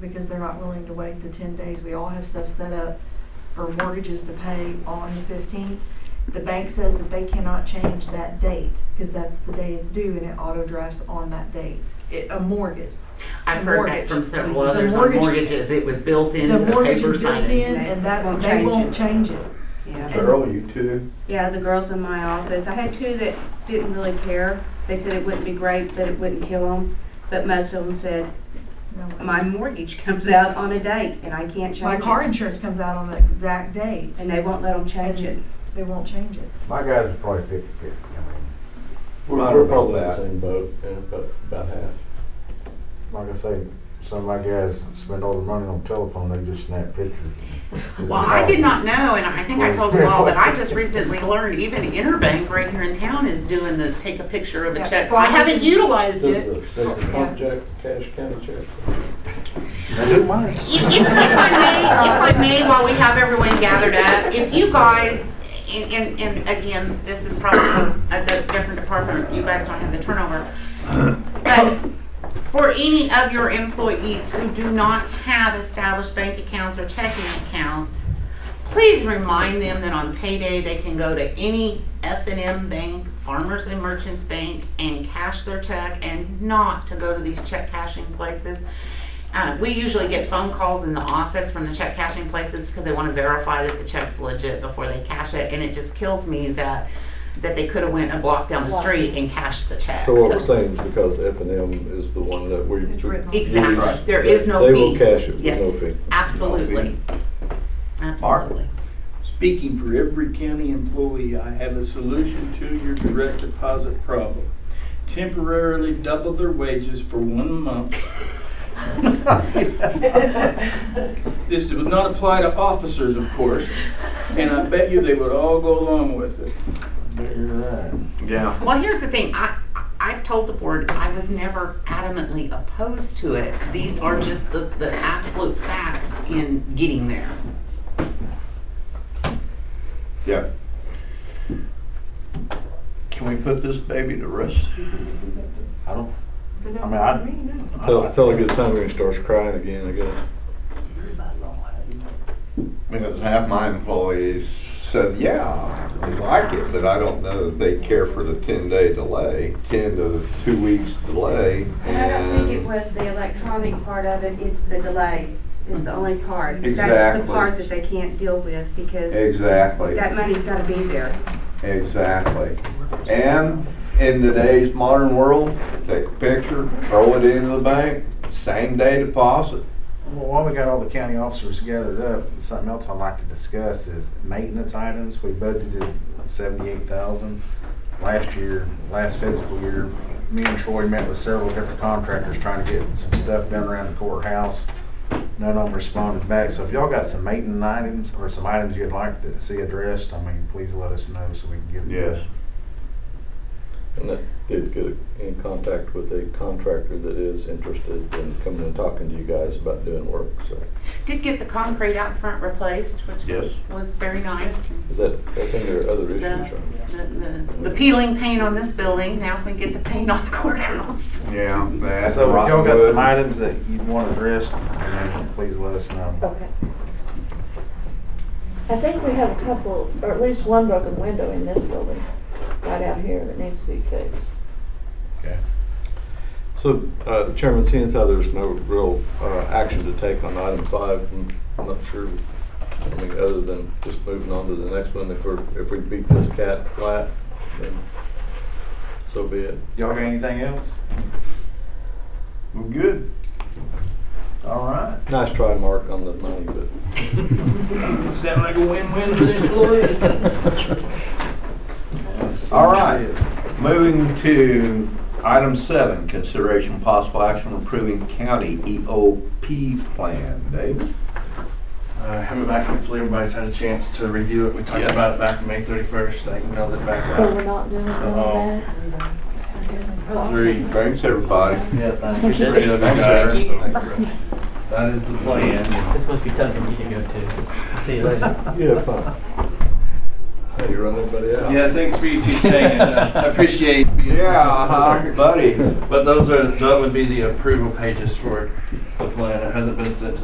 because they're not willing to wait the ten days. We all have stuff set up for mortgages to pay on the fifteenth. The bank says that they cannot change that date, because that's the day it's due, and it auto drafts on that date. It, a mortgage. I've heard that Mortgage. from several The others on mortgage- mortgages, it was built into The the mortgage paper is built signing. in, and that, Won't they change won't it. change it. Yeah, Girl, you too. yeah, the girls in my office, I had two that didn't really care. They said it wouldn't be great, that it wouldn't kill them, but most of them said, No way. my mortgage comes out on a date and I can't My change car it. insurance comes out on the exact date, And they won't let them change it. they won't change it. My guys are probably fifty fifty, I mean, We're, Right we're about probably in that. the same boat, yeah, about, about half. like I say, some of my guys spend all their money on telephone, they just snap pictures. Well, I did not know, and I think I told you all, that I just recently learned even Interbank right here in town is doing the take a picture of a Yeah. check. Well, I I haven't think- Does utilized it. the, does the Yeah. pump jack cash county checks? They do mine. If, if if I may, if I may, while we have everyone gathered up, if you guys, and, and, and again, this is probably a di- different department, you guys don't have the turnover. But for any of your employees who do not have established bank accounts or checking accounts, please remind them that on payday, they can go to any F and M bank, Farmers and Merchants Bank, and cash their check, and not to go to these check cashing places. Uh, we usually get phone calls in the office from the check cashing places because they want to verify that the check's legit before they cash it, and it just kills me that, that they could have went a block down the street and cashed the check. So what we're saying is because F and M is the one that we. It's written on. Exactly, Right. there is no fee. They will cash it with Yes, no fee. Absolutely. Absolutely. Speaking for every county employee, I have a solution to your direct deposit problem. Temporarily double their wages for one month. This would not apply to officers, of course, and I bet you they would all go along with it. Yeah. Well, here's the thing, I, I- I've told the board, I was never adamantly opposed to it. These are just the, the absolute facts in getting there. Yeah. Can we put this baby to rest? I don't, I mean, I, Tell, tell a good time when he starts crying again, I guess. Because half my employees said, yeah, they like it, but I don't know that they care for the ten day delay, ten to two weeks delay. And I don't think it and- was the electronic part of it, it's the delay is the only part. That's the Exactly. part that they can't deal with because Exactly. that money's gotta be there. Exactly. And in today's modern world, take a picture, throw it into the bank, same day deposit. well, while we got all the county officers gathered up, something else I'd like to discuss is maintenance items. We budgeted seventy-eight thousand last year, last fiscal year. Me and Troy met with several different contractors trying to get some stuff done around the courthouse. None of them responded back, so if y'all got some maintenance items or some items you'd like to see addressed, I mean, please let us know so we can get. them Yes. And I did get in contact with a contractor that is interested in coming and talking to you guys about doing work, so. Did get the concrete out front replaced, which Yes. was, was very nice. Is that, that's under other issues, The, right? the- the- the peeling paint on this building, now we get the paint on the courthouse. Yeah, that. So if y'all got rotten some wood. items that you'd want addressed, then please let us know. Okay. I think we have a couple, or at least one broken window in this building, right out here, that needs to be fixed. So, uh, Chairman, seeing as how there's no real uh, action to take on item five, I'm not sure, I mean, other than just moving on to the next one, if we're, if we beat this cat flat, then so be it. Y'all got anything else? We're good. All right. Nice try, Mark, on the money, but. Sound like a win-win for the employees. All right, moving to item seven, consideration possible action on approving county EOP plan. Dave? Uh, have it back, hopefully everybody's had a chance to review it. We talked Yeah. about it back on May thirty-first, I emailed it back So we're out. not doing any of Uh-oh. that. Three, Thanks, everybody. yeah, thank you, you. three other Thanks, guys, Eric. so that is the plan. It's supposed to be tough for me to go to. See you later. Yeah, fine. Hey, you run everybody out. Yeah, thanks for you two staying, uh, I appreciate. being- Yeah, uh-huh, buddy. But those are, that would be the approval pages for the plan. It hasn't been sent to